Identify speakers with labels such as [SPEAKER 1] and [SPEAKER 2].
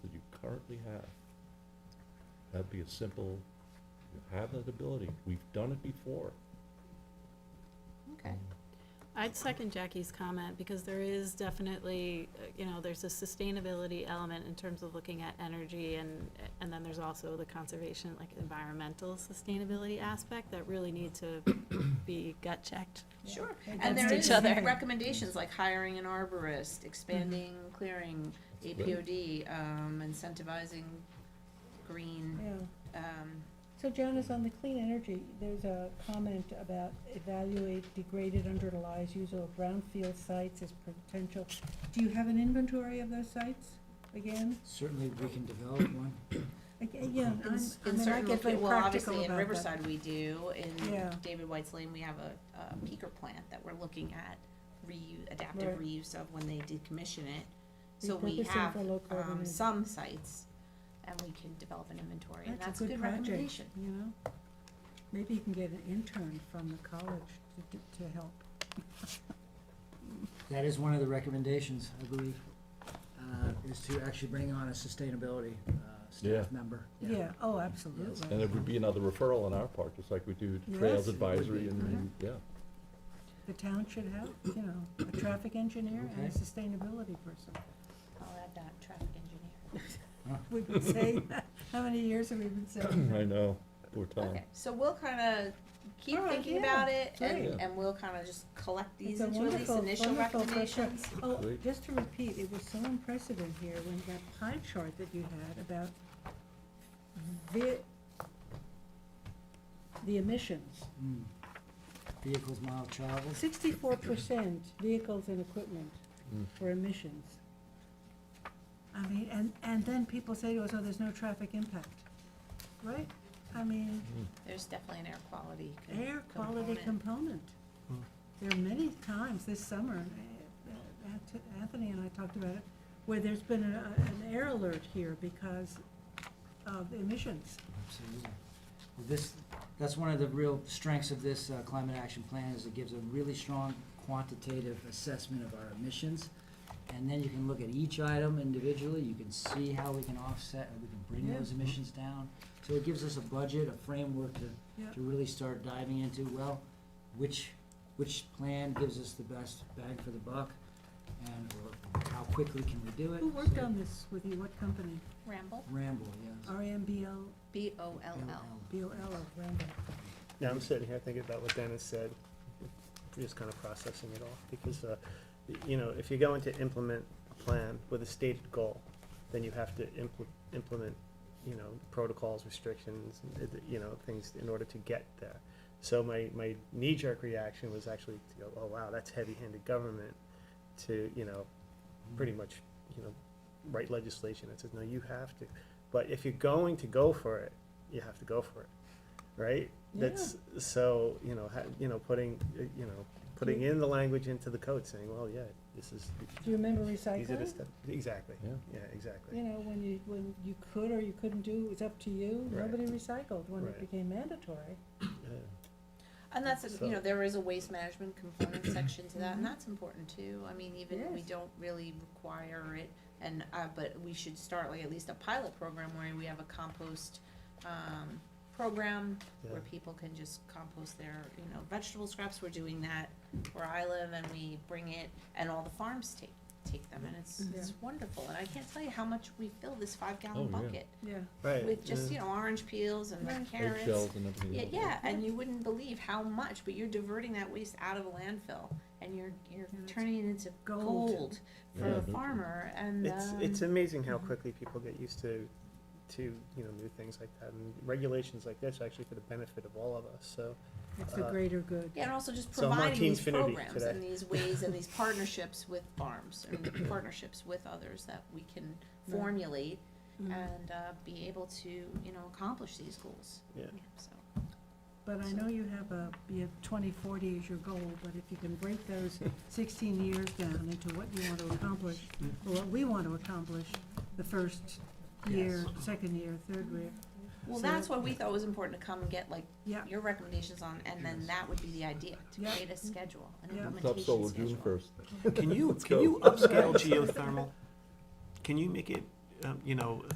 [SPEAKER 1] currently have. That'd be a simple, you have that ability, we've done it before.
[SPEAKER 2] Okay.
[SPEAKER 3] I'd second Jackie's comment, because there is definitely, uh, you know, there's a sustainability element in terms of looking at energy, and, and then there's also the conservation, like environmental sustainability aspect that really need to be gut checked.
[SPEAKER 2] Sure, and
[SPEAKER 3] Against
[SPEAKER 2] there
[SPEAKER 3] each
[SPEAKER 2] is
[SPEAKER 3] other.
[SPEAKER 2] recommendations like hiring an arborist, expanding
[SPEAKER 4] Mm-hmm.
[SPEAKER 2] clearing, APOD, um, incentivizing green,
[SPEAKER 4] Yeah,
[SPEAKER 2] um,
[SPEAKER 4] so Jonas, on the clean energy, there's a comment about evaluate degraded underutilized use or brownfield sites as potential. Do you have an inventory of those sites again?
[SPEAKER 5] Certainly, we can develop one.
[SPEAKER 4] Ag- Again,
[SPEAKER 2] in,
[SPEAKER 4] I'm,
[SPEAKER 2] s-
[SPEAKER 4] I
[SPEAKER 2] in
[SPEAKER 4] mean, I
[SPEAKER 2] certain,
[SPEAKER 4] get very
[SPEAKER 2] loca- well,
[SPEAKER 4] practical
[SPEAKER 2] obviously in
[SPEAKER 4] about that.
[SPEAKER 2] Riverside we do, in
[SPEAKER 4] Yeah.
[SPEAKER 2] David White's Lane, we have a, a peaker plant that we're looking at reu- adaptive
[SPEAKER 4] Right.
[SPEAKER 2] reuse of when they decommission it. So we
[SPEAKER 4] Repurposing
[SPEAKER 2] have,
[SPEAKER 4] for low carbon
[SPEAKER 2] um,
[SPEAKER 4] and-
[SPEAKER 2] some sites, and we can develop an inventory, and that's a good
[SPEAKER 4] project,
[SPEAKER 2] recommendation.
[SPEAKER 4] You know, maybe you can get an intern from the college to, d- to help.
[SPEAKER 5] That is one of the recommendations, I believe, uh, is to actually bring on a sustainability uh,
[SPEAKER 1] Yeah.
[SPEAKER 5] staff member.
[SPEAKER 4] Yeah, oh, absolutely.
[SPEAKER 1] And it would be another referral on our part, just like we do
[SPEAKER 4] Yes,
[SPEAKER 1] Trails
[SPEAKER 4] it would Mm-hmm.
[SPEAKER 1] Advisory
[SPEAKER 5] be.
[SPEAKER 1] and- and, yeah.
[SPEAKER 4] The town should have, you know, a traffic engineer and a
[SPEAKER 5] Okay.
[SPEAKER 4] sustainability person.
[SPEAKER 2] I'll add that, traffic engineer.
[SPEAKER 4] We've been saying that, how many years have we been saying that?
[SPEAKER 1] I know, poor Tom.
[SPEAKER 2] Okay, so we'll kinda keep
[SPEAKER 4] All right,
[SPEAKER 2] thinking
[SPEAKER 4] yeah,
[SPEAKER 2] about it,
[SPEAKER 1] great.
[SPEAKER 2] and, and we'll kinda just collect
[SPEAKER 4] It's
[SPEAKER 2] these
[SPEAKER 4] a
[SPEAKER 2] into these
[SPEAKER 4] wonderful-
[SPEAKER 2] initial
[SPEAKER 4] wonderful first
[SPEAKER 2] recommendations.
[SPEAKER 4] Oh,
[SPEAKER 1] Great.
[SPEAKER 4] just to repeat, it was so impressive in here when that pie chart that you had about the, the emissions.
[SPEAKER 5] Mm. Vehicles, mile traveled.
[SPEAKER 4] Sixty-four percent vehicles and equipment
[SPEAKER 1] Mm.
[SPEAKER 4] for emissions. I mean, and, and then people say to us, oh, there's no traffic impact, right? I mean,
[SPEAKER 2] There's definitely an air quality. co-
[SPEAKER 4] air quality
[SPEAKER 2] component.
[SPEAKER 4] component.
[SPEAKER 6] Hmm.
[SPEAKER 5] Mm.
[SPEAKER 4] There are many times this summer, and, uh, Ant- Anthony and I talked about it, where there's been a- an air alert here because of emissions.
[SPEAKER 5] Absolutely. Well, this, that's one of the real strengths of this uh, climate action plan, is it gives a really strong quantitative assessment of our emissions. And then you can look at each item individually, you can see how we can offset, or we can bring
[SPEAKER 4] Yeah.
[SPEAKER 5] those emissions down. So it gives us a budget, a framework
[SPEAKER 4] Yeah.
[SPEAKER 5] to, to really start diving into, well, which, which plan gives us the best bang for the buck? And, or how quickly can we do it?
[SPEAKER 4] Who worked
[SPEAKER 5] So-
[SPEAKER 4] on this with you? What company?
[SPEAKER 2] Ramble,
[SPEAKER 5] Ramble, yes.
[SPEAKER 4] R A M B L,
[SPEAKER 2] B O L L.
[SPEAKER 4] B O L of Randall.
[SPEAKER 6] Now I'm sitting here thinking about what Dennis said, just kind of processing it all, because, uh, y- you know, if you're going to implement a plan with a stated goal, then you have to impl- implement, you know, protocols, restrictions, and, uh, you know, things in order to get there. So my, my knee-jerk reaction was actually to go, oh, wow, that's heavy-handed government to, you know, pretty much, you know, write legislation that says, no, you have to. But if you're going to go for it, you have to go for it, right? That's, so, you know, ha- you know, putting, uh, you know, putting in the language into the code saying, well, yeah, this is,
[SPEAKER 4] Do you remember
[SPEAKER 6] these are the
[SPEAKER 4] recycling?
[SPEAKER 6] steps, exactly,
[SPEAKER 1] Yeah.
[SPEAKER 6] yeah,
[SPEAKER 4] You
[SPEAKER 6] exactly.
[SPEAKER 4] know, when you, when you could or you couldn't do, it was up to you.
[SPEAKER 6] Right.
[SPEAKER 4] Nobody recycled when it
[SPEAKER 6] Right.
[SPEAKER 4] became mandatory.
[SPEAKER 6] Yeah.
[SPEAKER 2] And that's, a- you
[SPEAKER 6] So-
[SPEAKER 2] know, there is a waste management component section to that, and that's important too. I mean, even if we
[SPEAKER 4] Mm-hmm. Yes.
[SPEAKER 2] don't really require it, and, uh, but we should start like at least a pilot program where we have a compost, um, program
[SPEAKER 6] Yeah.
[SPEAKER 2] where people can just compost their, you know, vegetable scraps. We're doing that where I live and we bring it, and all the farms take, take them, and it's, it's wonderfill. And I can't tell you how much we fill this five
[SPEAKER 1] Oh,
[SPEAKER 2] gallon
[SPEAKER 1] yeah.
[SPEAKER 2] bucket
[SPEAKER 4] Yeah.
[SPEAKER 6] Right.
[SPEAKER 2] with just,
[SPEAKER 6] yeah.
[SPEAKER 2] you know, orange peels and
[SPEAKER 4] Right.
[SPEAKER 2] carrots.
[SPEAKER 1] Eggshells and everything
[SPEAKER 2] Yeah,
[SPEAKER 1] else.
[SPEAKER 2] yeah, and you wouldn't believe how much, but you're diverting that waste out of a landfill, and you're, you're
[SPEAKER 4] And it's
[SPEAKER 2] turning it into
[SPEAKER 4] gold.
[SPEAKER 2] gold for
[SPEAKER 1] Yeah,
[SPEAKER 2] a
[SPEAKER 1] no-
[SPEAKER 2] farmer, and,
[SPEAKER 6] It's,
[SPEAKER 2] um,
[SPEAKER 6] it's amazing how quickly people get used to, to, you know, new things like that, and regulations like this are actually for the benefit of all of us, so.
[SPEAKER 4] It's the
[SPEAKER 6] Uh,
[SPEAKER 4] greater good.
[SPEAKER 2] yeah, and also just
[SPEAKER 6] So I'm on
[SPEAKER 2] providing
[SPEAKER 6] Team
[SPEAKER 2] these
[SPEAKER 6] Finity
[SPEAKER 2] programs
[SPEAKER 6] today.
[SPEAKER 2] and these ways and these partnerships with farms, and partnerships with others that we can
[SPEAKER 4] Right.
[SPEAKER 2] formulate
[SPEAKER 3] Mm.
[SPEAKER 4] Mhm.
[SPEAKER 2] and, uh, be able to, you know, accomplish these goals.
[SPEAKER 6] Yeah.
[SPEAKER 2] So,
[SPEAKER 4] But I know you have a, you have twenty forty as your goal, but if you can break those sixteen years down into what you want to accomplish, or what we want to accomplish, the first year, second year, third year,
[SPEAKER 2] well,
[SPEAKER 4] So-
[SPEAKER 2] that's what we thought was important to come and get, like,
[SPEAKER 4] yeah,
[SPEAKER 2] your recommendations on, and then
[SPEAKER 5] Yes.
[SPEAKER 2] that would be the idea, to
[SPEAKER 4] Yeah.
[SPEAKER 2] create a schedule, an
[SPEAKER 4] Yeah.
[SPEAKER 1] It's up
[SPEAKER 2] implementation schedule.
[SPEAKER 1] solo June first.
[SPEAKER 6] Can you,
[SPEAKER 1] Let's
[SPEAKER 6] can
[SPEAKER 1] go.
[SPEAKER 6] you upscale geothermal? Can you make it, um, you know,